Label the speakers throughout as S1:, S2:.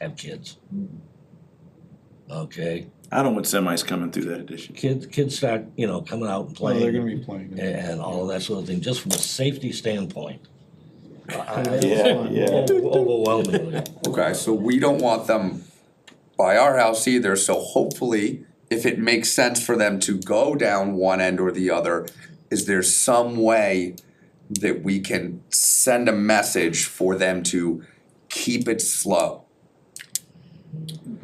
S1: have kids. Okay,
S2: I don't want semis coming through that addition.
S1: kids, kids start, you know, coming out and
S3: Well, Oh, they're gonna
S1: playing
S3: be playing.
S1: and, and all of that sort of thing, just from a safety standpoint. I- I-
S3: Yeah,
S1: Overwhelmingly,
S4: Okay, so we don't want them by our house either, so hopefully, if it makes sense for them to go down one end or the other, is there some way that we can send a message for them to keep it slow?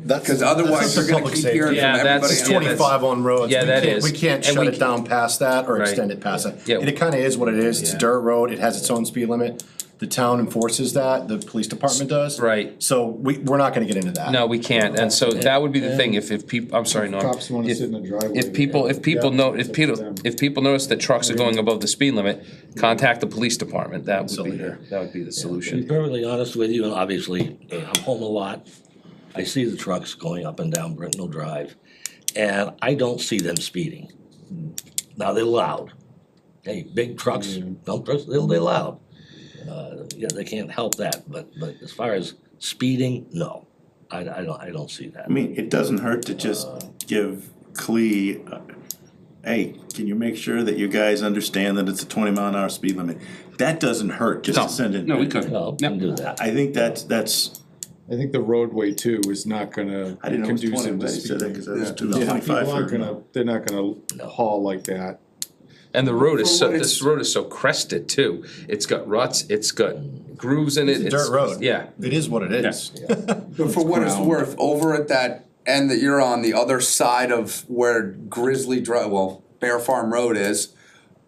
S3: That's.
S4: Because otherwise, you're gonna
S5: Public
S4: keep hearing from
S6: Yeah,
S4: everybody.
S6: that's-
S4: else.
S6: yeah, that's-
S5: Twenty-five on roads.
S6: Yeah,
S5: We
S6: that
S5: can't-
S6: is.
S5: We can't
S6: And
S5: shut
S6: we
S5: it down past that or
S6: Right.
S5: extend it past
S6: Yeah.
S5: that. And it kinda is what it is, it's
S6: Yeah.
S5: dirt road, it has its own speed limit, the town enforces that, the police department does.
S6: Right.
S5: So we, we're not gonna get into that.
S6: No, we can't, and so that would be the thing, if, if people, I'm sorry, Norm.
S3: Cops wanna
S6: If-
S3: sit in the driveway.
S6: If people, if people
S5: Yeah.
S6: know, if
S3: them.
S6: people, if people notice that trucks are going above the speed limit, contact the police department, that would be,
S5: Absolutely.
S6: that would be the
S1: to be
S6: solution.
S1: perfectly honest with you, and obviously, uh, I'm home a lot. I see the trucks going up and down Brittenell Drive, and I don't see them speeding. Now, they're loud. Hey, big trucks, dump trucks, they're, they're loud. Uh, yeah, they can't help that, but, but as far as speeding, no. I, I don't, I don't see that.
S2: I mean, it doesn't hurt to just give Clee, uh, hey, can you make sure that you guys understand that it's a twenty mile an hour speed limit? That doesn't hurt, just
S6: No.
S2: to send it.
S7: No, we could.
S1: No, can do that.
S2: I think that's, that's,
S3: I think the roadway too is not gonna
S2: I didn't know it was twenty,
S3: conducive to
S2: but he said that
S3: speeding.
S2: because I was
S4: Yeah.
S2: two
S3: Yeah,
S2: twenty
S3: people
S2: five
S3: aren't
S2: for.
S3: gonna, they're not gonna haul like that.
S6: And the road is so,
S4: Well,
S6: this
S4: it's-
S6: road is so crested too, it's got ruts, it's got grooves in it.
S5: It's a dirt road.
S6: Yeah,
S5: It is what it is.
S4: But for what it's
S3: ground.
S4: worth, over at that end that you're on, the other side of where Grizzly Drive, well, Bear Farm Road is,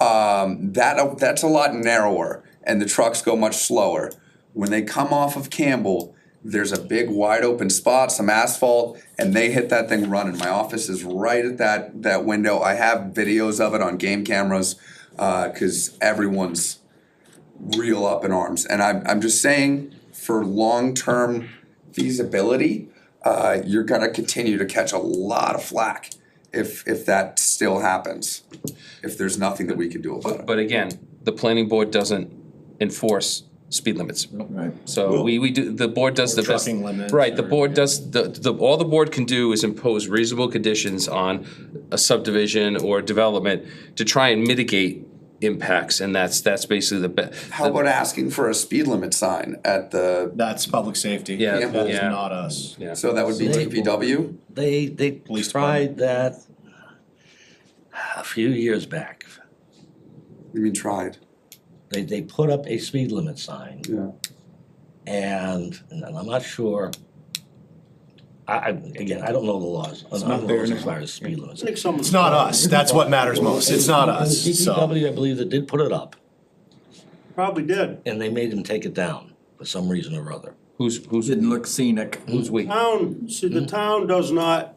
S4: um, that that's a lot narrower, and the trucks go much slower. When they come off of Campbell, there's a big wide open spot, some asphalt, and they hit that thing running. My office is right at that that window. I have videos of it on game cameras, because everyone's real up in arms. And I'm, I'm just saying, for long-term feasibility, uh, you're gonna continue to catch a lot of flack if, if that still happens. If there's nothing that we can do about it.
S6: but again, the planning board doesn't enforce speed limits.
S2: Right.
S6: So we, we do, the board does the best.
S5: trucking limits
S6: Right, the
S5: or-
S6: board does, the, the, all the board can do is impose reasonable conditions on a subdivision or development to try and mitigate impacts, and that's, that's basically the best.
S4: How about asking for a speed limit sign at the,
S5: That's public safety.
S6: Yeah,
S5: That is
S6: yeah.
S5: not us.
S6: Yeah.
S4: so that would be DPW?
S1: They, they
S5: Police
S1: tried that a few years back.
S4: You mean tried?
S1: They, they put up a speed limit sign.
S3: Yeah.
S1: And, and I'm not sure, I, I, again, I don't know the laws. It's
S3: not there
S1: As
S3: now.
S1: far as speed limits.
S7: think someone's.
S5: It's not us, that's what matters most, it's not us, so.
S1: DPW, I believe, that did put it up,
S7: Probably did.
S1: and they made him take it down for some reason or other.
S6: Who's, who's,
S2: Didn't look scenic.
S6: who's we?
S7: Town, see, the town does not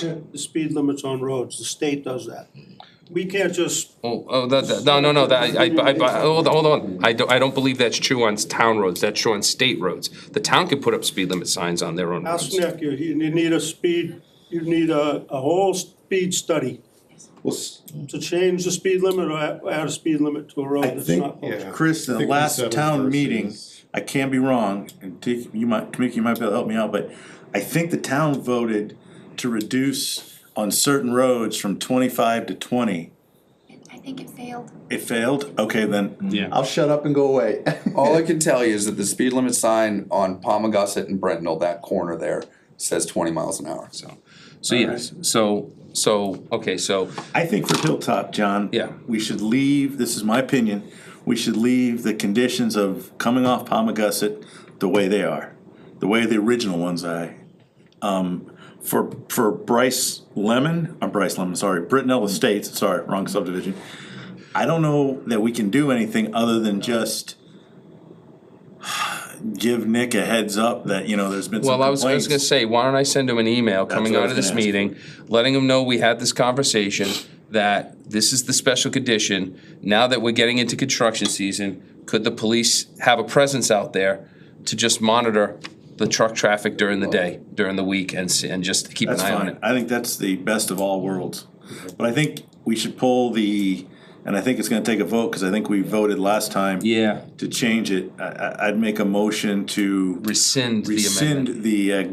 S7: hit the speed limits on roads, the state does that. We can't just,
S6: Oh, oh, that, that- no, no, no, that, I, I, I, hold on, hold on, I don't, I don't believe that's true on town roads, that's true on state roads. The town could put up speed limit signs on their own
S7: ask
S6: roads.
S7: Nick, you, you need a speed, you need a, a whole speed study
S2: Well, s-
S7: to change the speed limit or add- add a speed limit to a road
S2: I
S7: that's
S2: think-
S7: not.
S3: Yeah.
S2: Chris, the
S3: Think we
S2: last
S3: settled
S2: town
S3: versus-
S2: meeting, I can be wrong, and take, you might, Tamika, you might be able to help me out, but I think the town voted to reduce on certain roads from twenty-five to twenty.
S8: I think it failed.
S2: It failed? Okay, then.
S6: Yeah.
S2: I'll shut up and go away.
S4: All I can tell you is that the speed limit sign on Palmagussit and Brentnall, that corner there, says twenty miles an hour.
S6: So, so yes, so, so, okay, so,
S2: I think for Hilltop, John.
S6: Yeah.
S2: We should leave, this is my opinion, we should leave the conditions of coming off Palmagussit the way they are, the way the original ones I. Um, for, for Bryce Lemon, I'm Bryce Lemon, sorry, Brittenell Estates, sorry, wrong subdivision. I don't know that we can do anything other than just give Nick a heads up that, you know, there's been some
S6: well, I was, I was
S2: complaints.
S6: gonna say, why don't I send him an email coming
S2: what I
S6: out of
S2: was
S6: this
S2: gonna ask.
S6: meeting, letting him know we had this conversation, that this is the special condition, now that we're getting into construction season, could the police have a presence out there to just monitor the truck traffic during the day, during the week, and, s- and just keep an
S2: That's
S6: eye on it?
S2: fine. I think that's the best of all worlds. But I think we should pull the And I think it's gonna take a vote, cause I think we voted last time.
S6: Yeah.
S2: To change it, I, I, I'd make a motion to
S6: Rescind the amendment.
S2: rescind the uh,